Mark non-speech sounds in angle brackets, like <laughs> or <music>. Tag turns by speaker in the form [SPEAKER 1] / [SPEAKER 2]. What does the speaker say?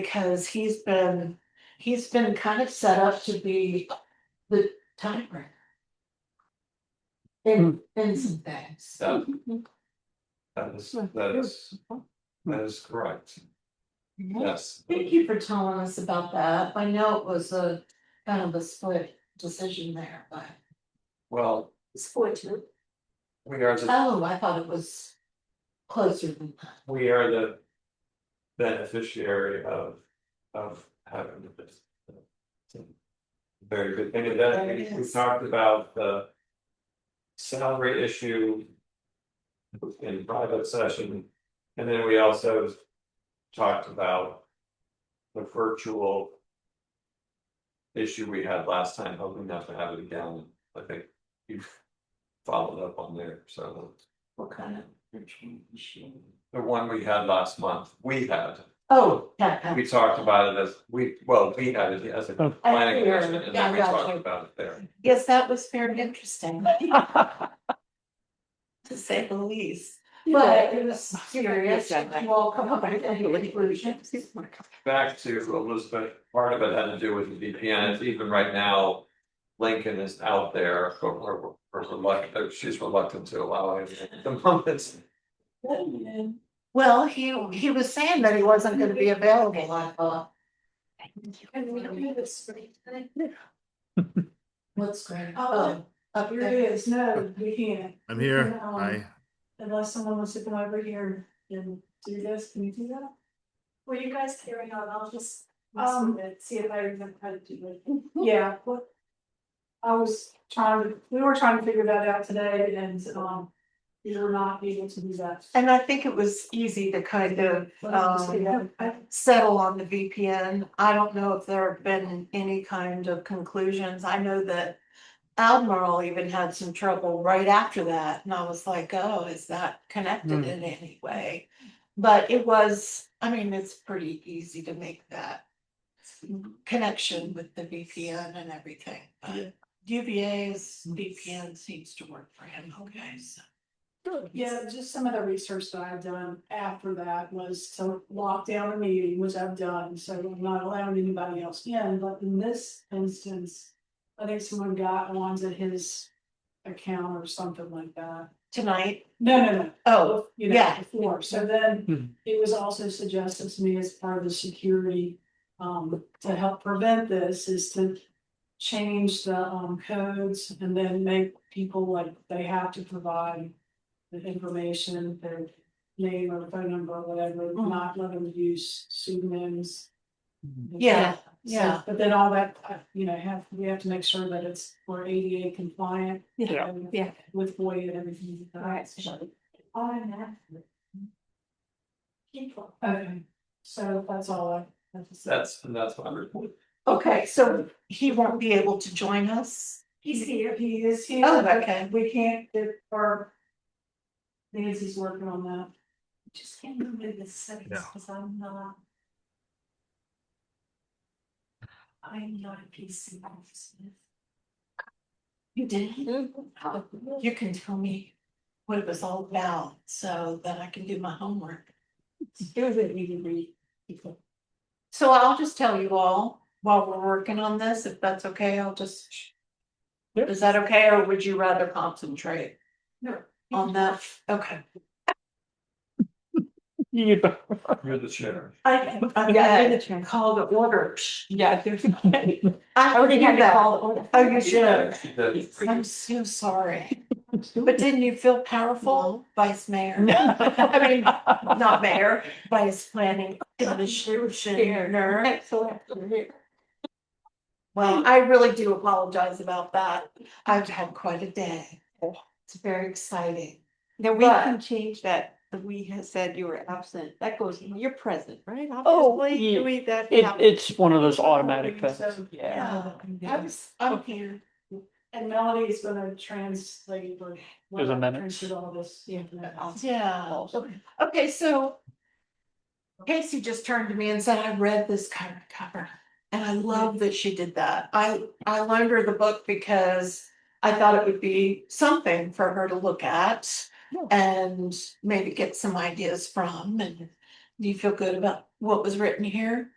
[SPEAKER 1] Because he's been, he's been kind of set up to be the timer. In, in some things.
[SPEAKER 2] That, that is, that is, that is correct, yes.
[SPEAKER 1] Thank you for telling us about that. I know it was a kind of a split decision there, but.
[SPEAKER 2] Well,
[SPEAKER 1] Split too.
[SPEAKER 2] we are the,
[SPEAKER 1] Oh, I thought it was closer than that.
[SPEAKER 2] we are the beneficiary of, of having this. Very good, and then
[SPEAKER 1] There it
[SPEAKER 2] we- we
[SPEAKER 1] is.
[SPEAKER 2] talked about the salary issue in private session, and then we also talked about the virtual issue we had last time, hoping not to have it again, I think you've followed up on there, so.
[SPEAKER 1] What kind of change?
[SPEAKER 2] The one we had last month, we had,
[SPEAKER 1] Oh, yeah, yeah.
[SPEAKER 2] we talked about it as, we, well, we had it as a planning commission, and then we
[SPEAKER 1] Yeah, gotcha.
[SPEAKER 2] talked about it there.
[SPEAKER 1] Yes, that was very interesting. <laughs> To say the least, but it was curious, well, come up with any conclusions. <laughs>
[SPEAKER 2] Back to Elizabeth, part of it had to do with the VPN, It's even right now. Lincoln is out there, but we're, we're reluctant, uh, she's reluctant to allow it at the moment.
[SPEAKER 1] Well, he, he was saying that he wasn't gonna be available, I thought.
[SPEAKER 3] And we don't have a spring time.
[SPEAKER 1] What's great?
[SPEAKER 3] Oh,
[SPEAKER 1] up
[SPEAKER 3] Here it is, no, you can't,
[SPEAKER 4] I'm here.
[SPEAKER 3] Yeah, um,
[SPEAKER 4] Hi.
[SPEAKER 3] unless someone wants to come over here and do this, can you do that?
[SPEAKER 5] Were you guys hearing out? I'll just
[SPEAKER 3] Um,
[SPEAKER 5] um see if I remember how to do it.
[SPEAKER 3] <laughs> Yeah, what? I was trying, to. we were trying to figure that out today and, um, we were not able to do that.
[SPEAKER 1] And I think it was easy to kind
[SPEAKER 5] uh,
[SPEAKER 1] of um
[SPEAKER 3] I-
[SPEAKER 1] settle on the VPN. I don't know if there have been any kind of conclusions. I know that Admiral even had some trouble right after that, and I was like, oh, is that connected
[SPEAKER 4] Hmm.
[SPEAKER 1] in any way? But it was, I mean, it's pretty easy to make that connection with the VPN and everything. But UVA's VPN seems to work for him, okay, so.
[SPEAKER 3] Yeah, just some of the research that I've done after that was to lock down a meeting, which I've done, so I'm not allowing anybody else in, but in this instance. I think someone got onto his account or something like that.
[SPEAKER 1] Tonight,
[SPEAKER 3] No, no, no,
[SPEAKER 1] oh,
[SPEAKER 3] both, you know,
[SPEAKER 1] Yeah.
[SPEAKER 3] before, so
[SPEAKER 4] Hmm.
[SPEAKER 3] then it was also suggested to me as part of the security. Um, to help prevent this is to change the um codes and then make people like they have to provide. The information, their name or phone number or whatever,
[SPEAKER 1] Hmm.
[SPEAKER 3] not let them use pseudonyms.
[SPEAKER 1] yeah,
[SPEAKER 3] So,
[SPEAKER 1] yeah.
[SPEAKER 3] But then all that, uh, you know, have, we have to make sure that it's we're ADA compliant.
[SPEAKER 4] Yeah.
[SPEAKER 3] and
[SPEAKER 1] Yeah.
[SPEAKER 3] With FOIA and everything.
[SPEAKER 5] Right. Automatically. People.
[SPEAKER 3] Okay, so that's all I have to say.
[SPEAKER 2] That's, and that's my report.
[SPEAKER 1] Okay, so he won't be able to join us?
[SPEAKER 5] He's here.
[SPEAKER 3] He is here.
[SPEAKER 1] Oh, okay.
[SPEAKER 3] We can't get our. Nancy's working on that.
[SPEAKER 5] Just can't remember the settings
[SPEAKER 4] Yeah.
[SPEAKER 5] because I'm not. I'm not a PC officer.
[SPEAKER 1] You did? Mm-hmm. You can tell me what it was all about so that I can do my homework. So I'll just tell you all while we're working on this, if that's okay, I'll just. Is that okay, or would you rather concentrate?
[SPEAKER 5] No.
[SPEAKER 1] On that, okay.
[SPEAKER 2] You're the chair.
[SPEAKER 1] I, <laughs> I
[SPEAKER 5] turn.
[SPEAKER 1] call the order.
[SPEAKER 5] Yeah.
[SPEAKER 1] <laughs> I already had that. Oh, you should.
[SPEAKER 2] She did.
[SPEAKER 1] I'm so sorry. <laughs> But didn't you feel powerful, Vice Mayor? <laughs> I mean, not mayor, vice planning commissioner. Well, I really do apologize about that. I've had quite a day. It's very exciting.
[SPEAKER 6] Now, we
[SPEAKER 1] But-
[SPEAKER 6] can change that, we have said you were absent, that goes, you're present, right?
[SPEAKER 7] Oh,
[SPEAKER 6] Obviously,
[SPEAKER 7] yeah.
[SPEAKER 6] we, that.
[SPEAKER 7] It,
[SPEAKER 6] yeah.
[SPEAKER 7] it's one of those automatic things.
[SPEAKER 3] So- Oh,
[SPEAKER 1] Yeah, I was, I'm here.
[SPEAKER 3] And Melody is gonna translate or.
[SPEAKER 7] There's a minute.
[SPEAKER 3] Translate all this. Yeah.
[SPEAKER 1] Yeah. Okay, so Casey just turned to me and said, I read this cover to cover. And I love that she did that. I, I loaned her the book because I thought it would be something for her to look at and maybe get some ideas from. And do you feel good about what was written here?